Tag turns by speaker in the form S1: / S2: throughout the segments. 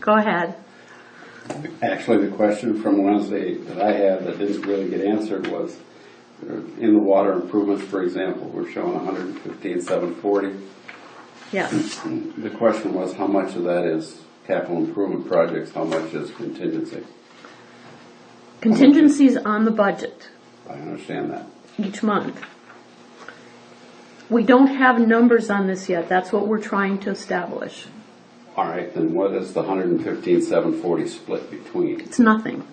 S1: Go ahead.
S2: Actually, the question from Wednesday that I had that didn't really get answered was, uh, in the water improvements, for example, we're showing 115,740.
S1: Yes.
S2: The question was, how much of that is capital improvement projects, how much is contingency?
S1: Contingencies on the budget
S2: I understand that.
S1: each month. We don't have numbers on this yet. That's what we're trying to establish.
S2: All right, then what is the 115,740 split between?
S1: It's nothing.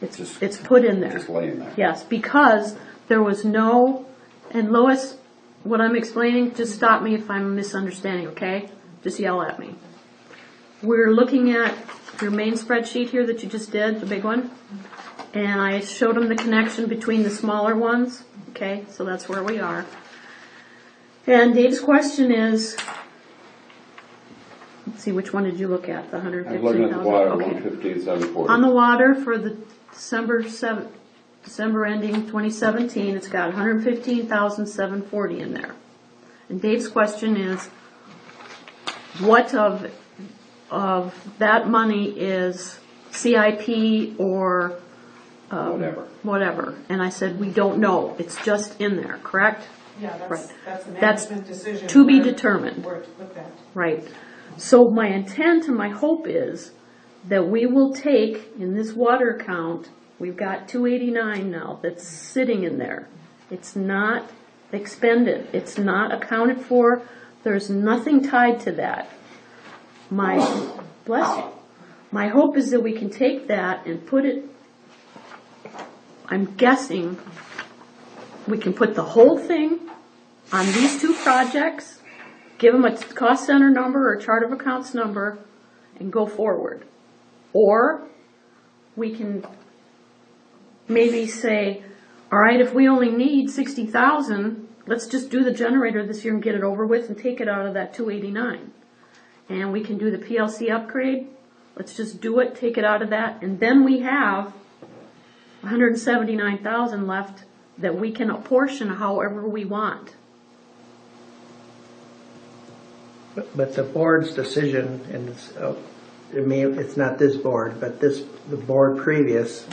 S1: It's,
S2: Just-
S1: it's put in there.
S2: Just laying there.
S1: Yes, because there was no, and Lois, what I'm explaining, just stop me if I'm misunderstanding, okay? Just yell at me. We're looking at your main spreadsheet here that you just did, the big one, and I showed them the connection between the smaller ones, okay? So that's where we are. And Dave's question is, let's see, which one did you look at, the hundred
S2: I'm
S1: fifteen
S2: looking
S1: thousand?
S2: at the water,
S1: On
S2: 115,740.
S1: the water for the December seven, December ending twenty seventeen, it's got 115,740 in there. And Dave's question is, what of, of that money is CIP or
S2: Whatever.
S1: whatever? And I said, we don't know, it's just in there, correct?
S3: Yeah, that's,
S1: Right.
S3: that's a
S1: That's
S3: management decision.
S1: to be
S3: where-
S1: determined.
S3: Where to put that.
S1: Right. So my intent and my hope is that we will take in this water account, we've got two eighty-nine now that's sitting in there. It's not expended, it's not accounted for, there's nothing tied to that. My, bless you, my hope is that we can take that and put it, I'm guessing, we can put the whole thing on these two projects, give them a cost center number or chart of accounts number, and go forward. Or we can maybe say, all right, if we only need sixty thousand, let's just do the generator this year and get it over with and take it out of that two eighty-nine. And we can do the PLC upgrade, let's just do it, take it out of that, and then we have hundred and seventy-nine thousand left that we can apportion however we want.
S4: But but the board's decision, and it's, uh, I mean, it's not this board, but this, the board previous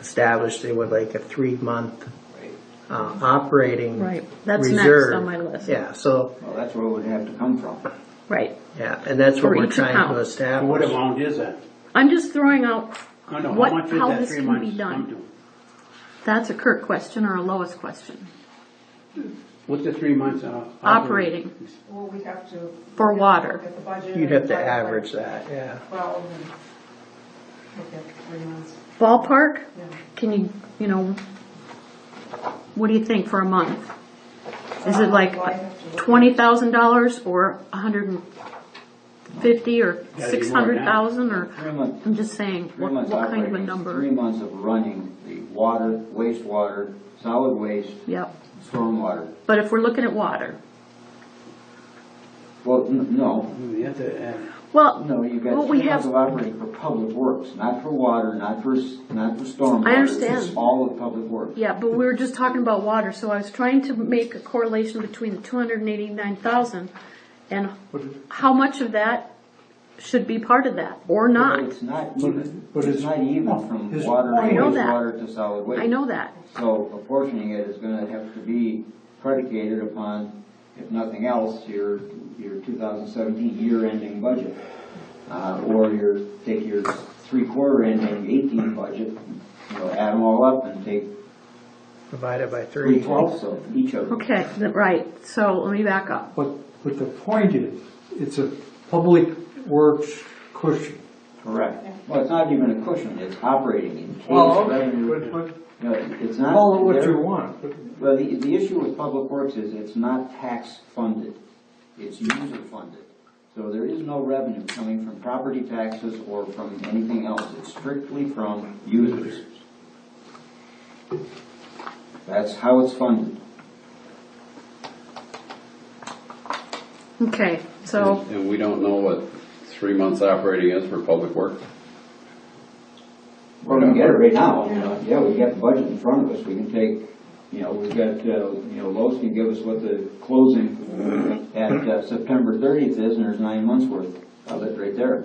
S4: established they would like a three-month uh, operating
S1: Right.
S4: reserve.
S1: That's next on my list.
S4: Yeah, so,
S5: Well, that's where it would have to come from.
S1: Right.
S4: yeah, and that's
S1: For
S4: what we're
S1: each
S4: trying
S1: account.
S4: to establish.
S6: What amount is that?
S1: I'm just throwing out
S6: I know, how
S1: what,
S6: much is
S1: how
S6: that
S1: this
S6: three
S1: can be
S6: months come
S1: done.
S6: to?
S1: That's a Kirk question or a Lois question.
S6: What's the three months uh,
S1: Operating.
S3: Well, we have to.
S1: For
S3: look at-
S1: water.
S3: Look at the budget.
S4: You'd have
S3: and
S4: to
S3: try
S4: average
S3: like
S4: that, yeah.
S3: Twelve and look at three months,
S1: Ballpark,
S3: yeah.
S1: can you, you know, what do you think for a month? Is it like
S3: Well, I have to look at-
S1: twenty thousand dollars or a hundred and fifty or
S6: now.
S1: six hundred thousand or?
S5: Three months,
S1: I'm just saying,
S5: three
S1: what,
S5: months
S1: what kind of a
S5: operating, three
S1: number?
S5: months of running the water, wastewater, solid waste,
S1: Yep,
S5: stormwater.
S1: but if we're looking at water,
S5: Well, n- no,
S6: You have to add.
S1: well,
S5: no, you've got
S1: what we
S5: three months
S1: have,
S5: of operating for public works, not for water, not for, s- not for stormwater.
S1: I understand.
S5: It's all of public works.
S1: Yeah, but we were just talking about water, so I was trying to make a correlation between the two hundred and eighty-nine thousand and how much of that should be part of that, or
S5: But
S1: not.
S5: it's not
S6: But it-
S5: even,
S6: but
S5: it's
S6: it's-
S5: not even from
S6: it's-
S5: water,
S6: I
S1: know that.
S5: wastewater to solid waste.
S1: I know that,
S5: So apportioning it is gonna have to be predicated upon, if nothing else, your, your 2017 year-ending budget. Uh, Or your, take your three-quarter ending 18 budget, you know, add them all up and take
S4: Divided by three.
S5: three twelfths of each of them.
S1: okay, th- right, so let me back up.
S7: But, but the point is, it's a public works cushion.
S5: Correct. Well, it's not even a cushion, it's operating in case
S7: But,
S5: revenue.
S7: but,
S5: No, It's not.
S7: call it what
S5: there-
S7: you want, but
S5: Well, the, the issue with public works is it's not tax-funded, it's user-funded. So there is no revenue coming from property taxes or from anything else, it's strictly from users. That's how it's funded.
S1: Okay, so,
S2: And we don't know what three months operating is for public work?
S5: We're gonna get it right now, you know, yeah, we got the budget in front of us, we can take, you know, we've got, uh, you know, Lois can give us what the closing at uh, September thirtieth is, and there's nine months worth of it right there.